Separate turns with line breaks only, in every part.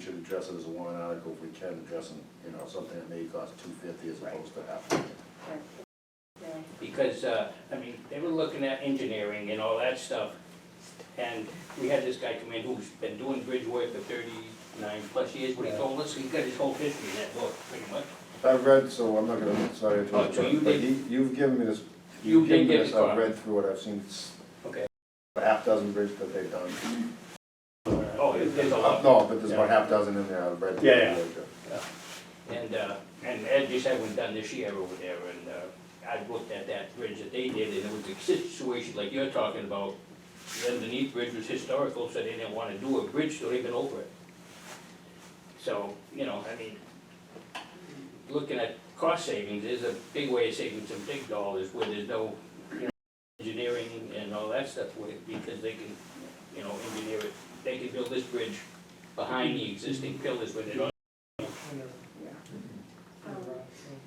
should address it as a warrant article if we can, addressing, you know, something that may cost two fifty as opposed to half.
because, uh, I mean, they were looking at engineering and all that stuff. And we had this guy come in who's been doing bridge work for thirty-nine plus years, what he told us, he got his whole history in that book, pretty much.
I've read, so I'm not gonna, sorry, to
Oh, so you
interrupt, but
did-
he- you've given me this,
You
you've given
did
me
give
this,
it to
I've
him.
read through it, I've seen s-
Okay.
a half dozen bridges that they've done.
Oh, there's a
Uh,
lot.
No, but there's about half dozen in there, I've read. through
Yeah,
it.
And, uh, and Ed just had one done this year over there, and, uh, I looked at that bridge that they did, and it was a situation like you're talking about. The underneath bridge was historical, so they didn't wanna do a bridge, so they been over it. So, you know, I mean, looking at cost savings, there's a big way of saving some big dollars where there's no, you know, engineering and all that stuff with it, because they can, you know, engineer it, they can build this bridge behind the existing pillars where they don't
Um,
uh,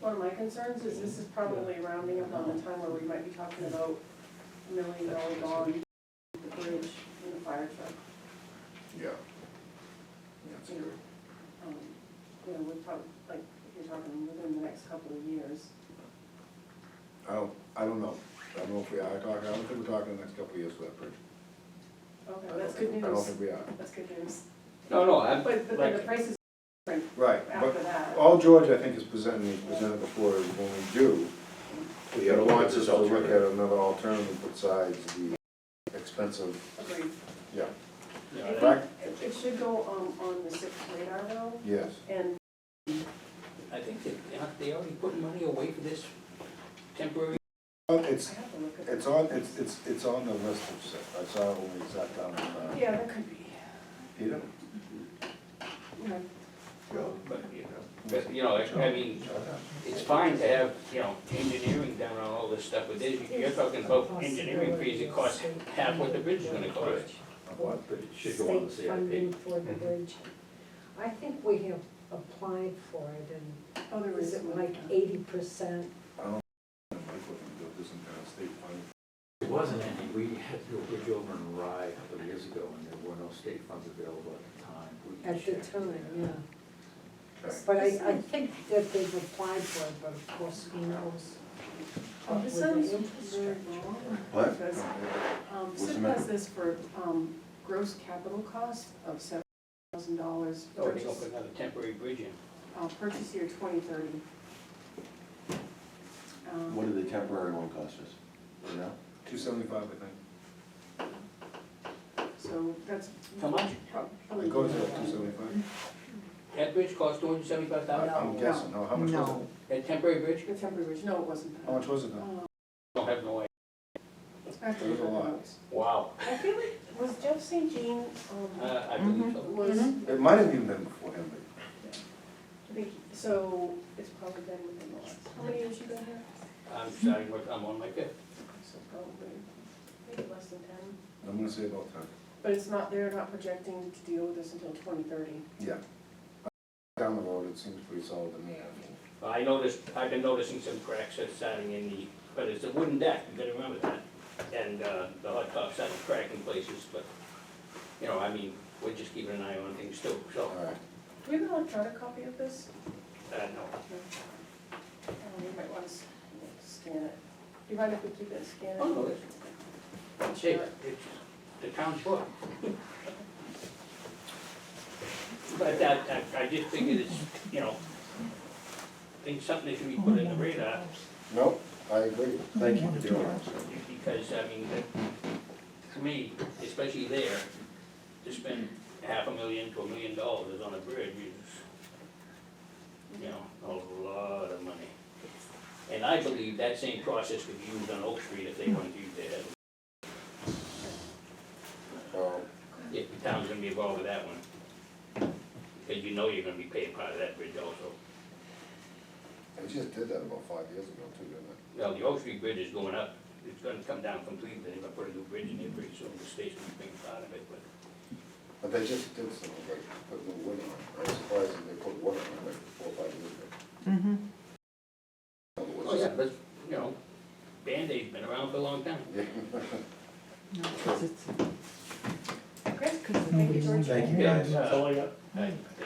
One of my concerns is this is probably rounding up on the time where we might be talking about milling, dollar gone, the bridge and the fire truck.
Yeah. That's
you know,
good.
um, You know, we're probably, like, if you're talking within the next couple of years.
I don't, I don't know, I don't know if we are talking, I don't think we're talking the next couple of years for that bridge. I
Okay,
don't
that's
think-
good
I don't
news,
think we are,
that's good news.
No, no, I'm,
But, but then the
like,
prices
right, but
after that,
All George, I think, is presenting, presented before is when we do, he wants us to look at another alternative besides the expensive,
agreed.
yeah,
you
I
know, that-
Right.
think it- it should go, um, on the sixth radar though,
yes.
and
I think that, aren't they already putting money away for this temporary?
Well,
I
It's,
have to look at.
it's on, it's, it's, it's on the list of stuff, I saw it when we sat down with, uh,
Yeah, that could be,
Peter.
okay.
But, you know, but, you know, I I mean, it's fine to have, you know, engineering down on all this stuff, but there's- you're talking about engineering fees that cost half what the bridge is gonna cost.
What?
But it should go on
state
the CIP.
funding for the
Mm-hmm.
bridge. I think we have applied for it and
Oh, there was.
is it like eighty percent?
It wasn't any, we had to do a bridge over in Rye a couple of years ago, and there were no state funds available at the time. We can
At the
check.
time, yeah.
Okay.
But I, I think that they've applied for it, but of course, who knows?
Oh,
With
This
the
sounds very
infrastructure.
wrong.
What?
Because, um,
What's the
SIP
matter?
has this for, um, gross capital cost of seven thousand dollars
Oh,
for
they gonna put another temporary bridge in.
uh, purchase year twenty thirty.
What did the temporary one cost us? You know?
Two seventy-five, I
So that's.
How much?
prob-
think,
probably-
it goes to two seventy-five,
That bridge cost two hundred seventy-five thousand
I'm
dollars.
guessing, no, how much was it?
No.
That temporary bridge,
The temporary bridge, no, it wasn't that.
How much was it then?
Uh,
don't have no idea.
It's back to
It was a
the
lot.
notes.
Wow,
I feel like, was Jeff St. Jean, um,
uh, I believe so.
was,
It might have even been before him, but
I think, so it's probably been within the last, how many years you been here?
I'm starting work, I'm on my fifth.
So probably, maybe less than ten.
I'm gonna say about ten.
But it's not, they're not projecting to deal with this until twenty thirty.
Yeah. Down the road, it seems pretty solid to me, I mean.
I noticed, I've been noticing some cracks that's starting in the, but it's a wooden deck, you gotta remember that. And, uh, the hot top started cracking places, but, you know, I mean, we're just keeping an eye on things too, so,
All right,
Do we have an electronic copy of this?
uh, no.
Uh, We might want to scan it. Do you mind if we keep it scanned?
Oh, no, it's,
Sure.
it's, it's the town's fault. But that, that- I just figured it's, you know, I think something that should be put in the radar,
no, I agree,
Mm-hmm.
thank you for doing that, sir.
because, I mean, that- to me, especially there, to spend half a million to a million dollars on a bridge is, you know, a lot of money. And I believe that same process could be used on Oak Street if they wanted to use their head.
Well,
If the town's gonna be involved with that one. Because you know you're gonna be paying part of that bridge also.
we just did that about five years ago too, didn't we?
Now, the Oak Street Bridge is going up, it's gonna come down completely, they're gonna put a new bridge in there pretty soon, the state's gonna be part of it, but
But they just did something like put new wood on it, I was surprised that they put wood on it like four, or five years ago. Mm-hmm.
Oh, yeah, but, you know, Band-Aid's been around for a long time.
Okay, thank you, George.
Thank you,
Yeah,
guys.
uh, I-